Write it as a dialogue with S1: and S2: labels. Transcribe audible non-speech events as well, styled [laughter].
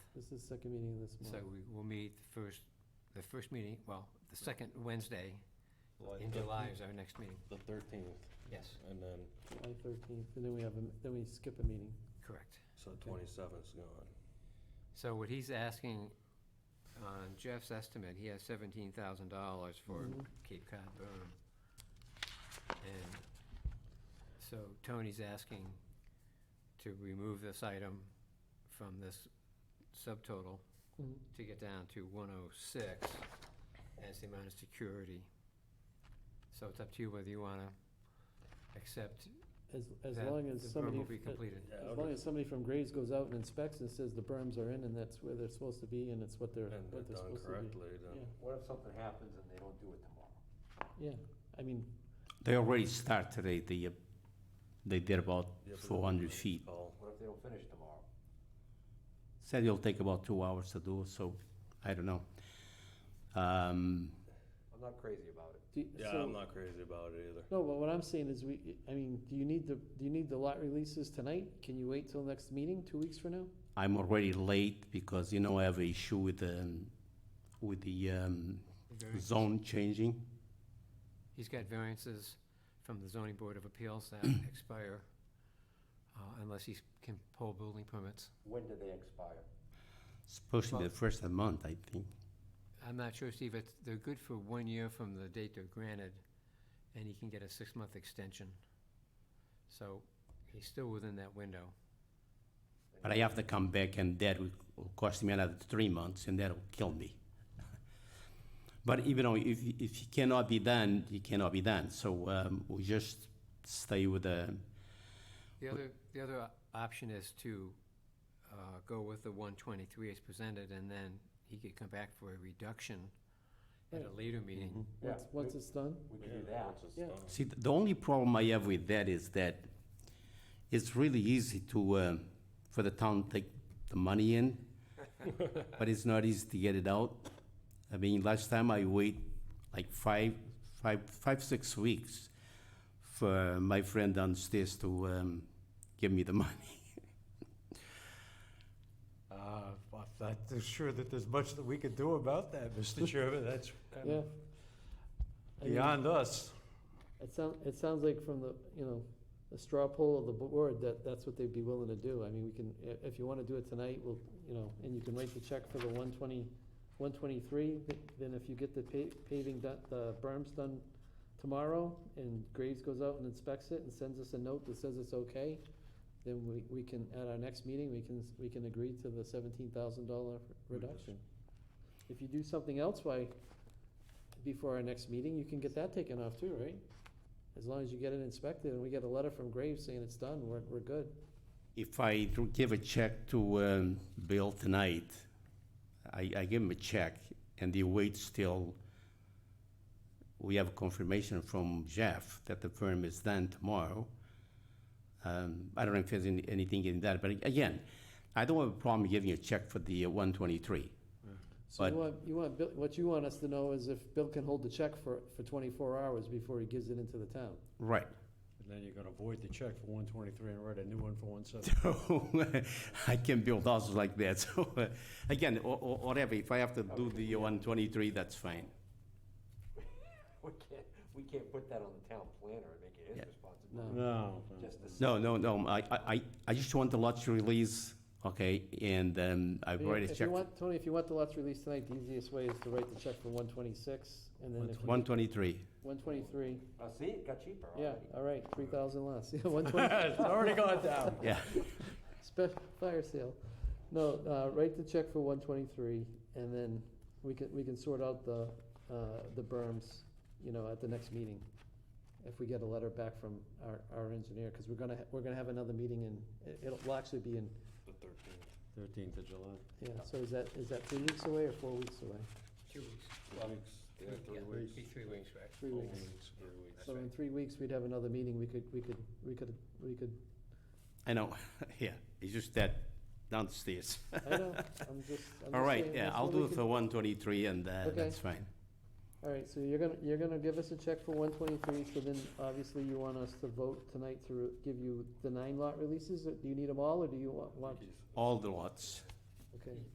S1: This is the second meeting of this month.
S2: So we will meet the first, the first meeting, well, the second Wednesday in July is our next meeting.
S3: The thirteenth,
S2: Yes,
S3: and then,
S1: July thirteenth, and then we have, a- then we skip a meeting.
S2: correct.
S3: so twenty-seventh's gone.
S2: So what he's asking, on Jeff's estimate, he has seventeen thousand dollars for
S1: Mhm.
S2: Cape Cod berm. And so Tony's asking to remove this item from this subtotal
S1: Mhm.
S2: to get down to one oh six as the amount of security. So it's up to you whether you wanna accept
S1: As, as
S2: that
S1: long as
S2: the berm
S1: somebody.
S2: will be
S1: f- uh,
S2: completed.
S1: As long as somebody from Graves goes out and inspects and says the berms are in and that's where they're supposed to be and it's what they're,
S3: And
S1: what
S3: they're
S1: they're
S3: done
S1: supposed to
S3: correctly,
S1: Yeah.
S3: then.
S4: What if something happens and they don't do it tomorrow?
S1: be. Yeah, I mean,
S5: They already started, they, they, uh, they did about
S3: Yeah, but
S5: four hundred
S3: it's
S5: feet.
S3: all-
S4: What if they don't finish tomorrow?
S5: Said it'll take about two hours to do, so I don't know. Um,
S4: I'm not crazy about it.
S1: do, you-
S3: Yeah, I'm
S1: so,
S3: not crazy about it either.
S1: no, but what I'm saying is we, I mean, do you need the, do you need the lot releases tonight? Can you wait till next meeting, two weeks from now?
S5: I'm already late because, you know, I have an issue with the, with the, um, zone changing.
S2: He's got variances from the zoning board of appeals that expire uh, unless he can pull building permits.
S4: When do they expire?
S5: Especially the
S2: Well-
S5: first month, I think.
S2: I'm not sure, Steve, it's, they're good for one year from the date they're granted, and he can get a six-month extension. So he's still within that window.
S5: But I have to come back and that will will cost me another three months and that'll kill me. [laughs] But even though if, if it cannot be done, it cannot be done. So um, we just stay with the,
S2: The other, the other o- option is to uh, go with the one twenty-three as presented, and then he could come back for a reduction at a later meeting.
S3: Mm-hmm.
S4: Yeah,
S1: Once, once it's done?
S4: We
S3: Yeah,
S4: can do that.
S3: once it's
S1: Yeah.
S3: done.
S5: see, the only problem I have with that is that it's really easy to, um, for the town to take the money in, but it's not easy to get it out. I mean, last time I wait like five, five, five, six weeks for my friend downstairs to um, give me the [laughs] money.
S6: Uh, I'm not too sure that there's much that we could do about that,
S1: [laughs]
S6: Mr. Chairman. That's kind
S1: Yeah.
S6: of
S1: I mean,
S6: beyond us.
S1: It sound, it sounds like from the, you know, the straw poll of the board, that, that's what they'd be willing to do. I mean, we can, i- if you wanna do it tonight, we'll, you know, and you can write the check for the one twenty, one twenty-three, then if you get the pa- paving done, the berms done tomorrow, and Graves goes out and inspects it and sends us a note that says it's okay, then we, we can, at our next meeting, we can, s- we can agree to the seventeen thousand dollar reduction. If you do something else by, before our next meeting, you can get that taken off too, right? As long as you get it inspected and we get a letter from Graves saying it's done, we're, we're good.
S5: If I do give a check to um, Bill tonight, I, I give him a check and he waits till we have confirmation from Jeff that the firm is done tomorrow. Um, I don't know if there's any- anything in that, but again, I don't have a problem giving a check for the uh, 123.
S1: So you
S5: But-
S1: want, you want, Bill- what you want us to know is if Bill can hold the check for, for twenty-four hours before he gives it into the town.
S5: [laughs] Right.
S6: And then you're gonna void the check for one twenty-three and write a new one for one seventy.
S5: I can build houses like that. [laughs] So uh, again, or, or whatever, if I have to do the 123, that's fine.
S4: We can't, we can't put that on the town planner and make it his
S5: Yeah.
S4: responsibility.
S6: No. no.
S4: Just the.
S5: No, no, no, I, I, I- I just want the lot to release, okay, and um, I've
S1: If you-
S5: already
S1: If you
S5: checked.
S1: want, Tony, if you want the lots released tonight, the easiest way is to write the check for one twenty-six and then if you,
S5: One twenty-three.
S1: one twenty-three,
S4: Uh, see, it got cheaper
S1: yeah,
S4: already.
S1: all right, three thousand less, [laughs] yeah, one twenty,
S6: [laughs] It's already gone down.
S5: Yeah,
S1: special fire sale. No, uh, write the check for one twenty-three and then we can, we can sort out the, uh, the berms, you know, at the next meeting. If we get a letter back from our, our engineer, cause we're gonna, ha- we're gonna have another meeting in, it- it'll, will actually be in,
S3: The thirteenth.
S6: Thirteenth of July.
S1: yeah, so is that, is that three weeks away or four weeks away?
S2: Two weeks.
S3: Yeah, three weeks.
S2: Three weeks, right.
S1: Three weeks.
S3: Three weeks.
S1: So in three weeks, we'd have another meeting, we could, we could, we could, we could,
S5: I know, [laughs] yeah, it's just that downstairs.
S1: I know, I'm just, I'm
S5: All
S1: just
S5: right,
S1: saying
S5: yeah,
S1: that's
S5: I'll
S1: what we
S5: do it
S1: could-
S5: for one twenty-three and uh,
S1: Okay.
S5: that's fine.
S1: All right, so you're gonna, you're gonna give us a check for one twenty-three, so then obviously you want us to vote tonight to re- give you the nine lot releases, Or do you need them all, or do you want, want,
S5: All the lots.
S1: okay?